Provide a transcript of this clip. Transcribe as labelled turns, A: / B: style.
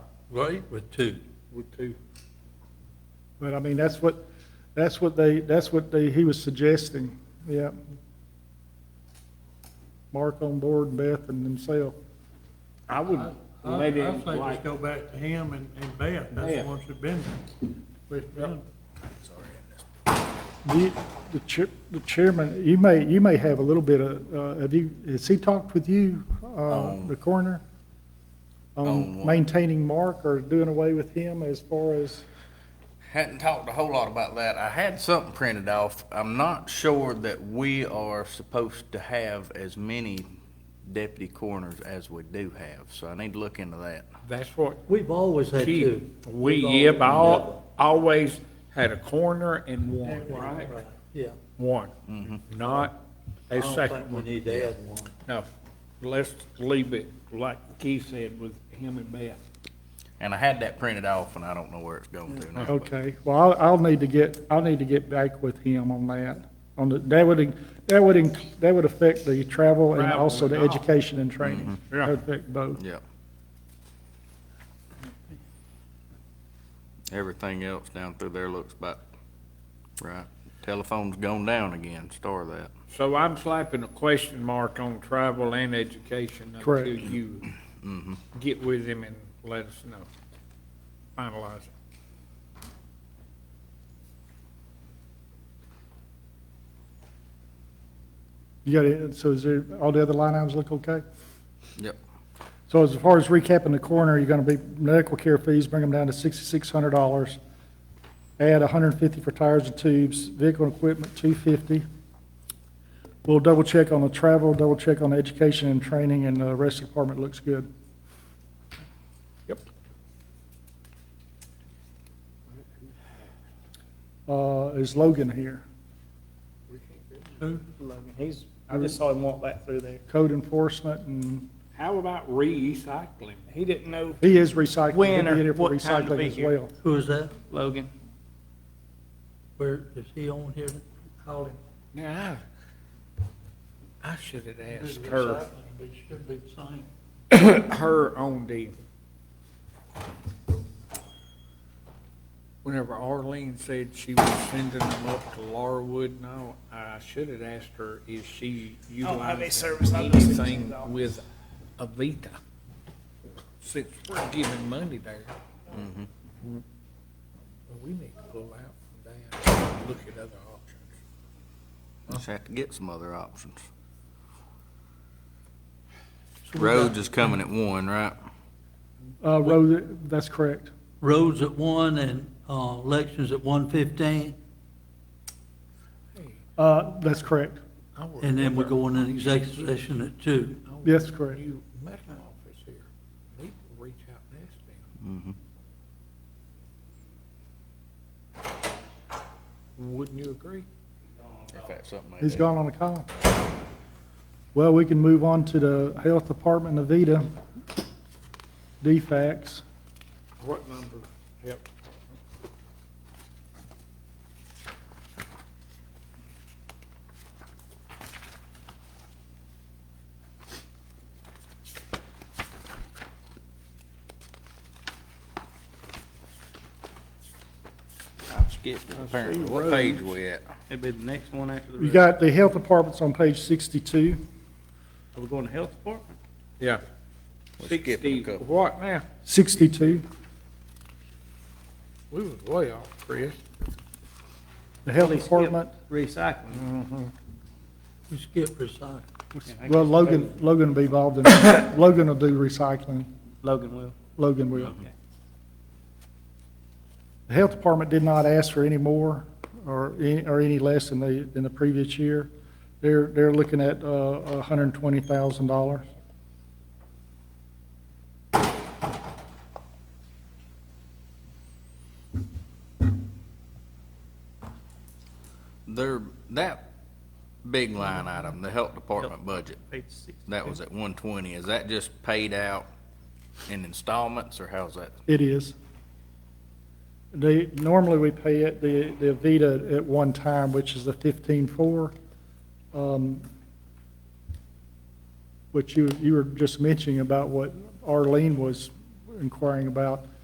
A: right, with two.
B: with two.
C: But I mean, that's what, that's what they, that's what they, he was suggesting, yeah. Mark on board, Beth and himself.
B: I would,
D: I,
B: well,
D: I
B: they
D: think
B: didn't
D: let's
B: like,
D: go back to him and, and Beth, that's the
B: Yeah.
D: ones that been there. With them.
C: You, the chair, the chairman, you may, you may have a little bit of, uh, have you, has he talked with you, uh, the coroner?
E: on
C: On
E: what?
C: maintaining Mark or doing away with him as far as,
E: Hadn't talked a whole lot about that. I had something printed off. I'm not sure that we are supposed to have as many deputy coroners as we do have, so I need to look into that.
A: That's what
F: We've always had
B: chief,
F: two.
B: we,
F: We've
B: yep,
F: always-
B: al- always had a coroner and one, right?
F: Yeah.
B: One, not a
F: I don't think
B: second
F: we
B: one.
F: need to add one.
B: No, let's leave it like Keith said with him and Beth.
E: And I had that printed off, and I don't know where it's going to now. but-
C: okay, well, I'll, I'll need to get, I'll need to get back with him on that. On the, that would, that would, inc- that would affect the travel and
B: Travel
C: also the
B: and all.
C: education and training.
B: Mhm. Yeah.
C: That'd Affect both.
E: Yeah. Everything else down through there looks about right. Telephone's gone down again, star that.
B: So I'm slapping a question mark on travel and education until
C: Correct.
B: you get with him and let us know. Finalize it.
C: You got it, so is there, all the other line items look okay?
E: Yep.
C: So as far as recapping the coroner, you're gonna be, medical care fees, bring them down to sixty-six hundred dollars. Add hundred and fifty for tires and tubes, vehicle and equipment, two fifty. We'll double check on the travel, double check on the education and training, and the rest of the department looks good.
B: Yep.
C: Uh, is Logan here?
D: Who?
G: He's, I just saw him walk back through there.
C: Code enforcement, and
B: How about recycling?
G: He didn't know
C: he is recycling.
G: When
C: He'll
G: or
C: be here for
G: what time to
C: recycling
G: be
C: as
G: here?
C: well.
F: Who is that?
G: Logan.
F: Where, is he on here? Call him.
B: Yeah. I should have asked her,
F: It should be the same.
B: her on the, whenever Arlene said she was sending them up to Larwood and all, I should have asked her, is she
G: don't have
B: utilizing
G: any service. Oh, I just-
B: anything with Avita? Since we're giving money there. Mm-hmm. Well, We need to pull out from that and look at other options.
E: Just have to get some other options. Roads is coming at one, right?
C: Uh, road, that's correct.
F: Roads at one and, uh, elections at one fifteen,
C: Uh, that's correct.
B: I work
F: and then we
B: with
F: go on an executive session at two.
C: Yes, correct.
B: New medical office here. Need to reach out and ask them. Wouldn't you agree?
E: If that's something they
C: He's
E: do.
C: gone on a call. Well, we can move on to the Health Department, Avita, DFAX.
B: What number? Yep.
E: I've skipped it apparently. What page we at?
G: It'd be the next one after the.
C: You
G: rest.
C: got the Health Department's on page 62.
G: Are we going to health department?
B: Yeah.
E: We skipped a
B: Sixty,
E: couple.
B: what now?
C: 62,
B: We was way off, Chris.
C: the Health
G: They skipped
C: Department,
G: Recycling.
F: We skip recycling.
C: well, Logan, Logan will be involved in, Logan will do recycling,
G: Logan will.
C: Logan will.
G: Okay.
C: The Health Department did not ask for any more or, any- or any less than the, than the previous year. They're, they're looking at, uh, $120,000.
E: There, that big line item, the health department budget,
G: Page six.
E: that was at one twenty. Is that just paid out in installments or how's that?
C: It is. They, normally we pay it, the, the Avita at one time, which is the fifteen-four. Um, Which you, you were just mentioning about what Arlene was inquiring about.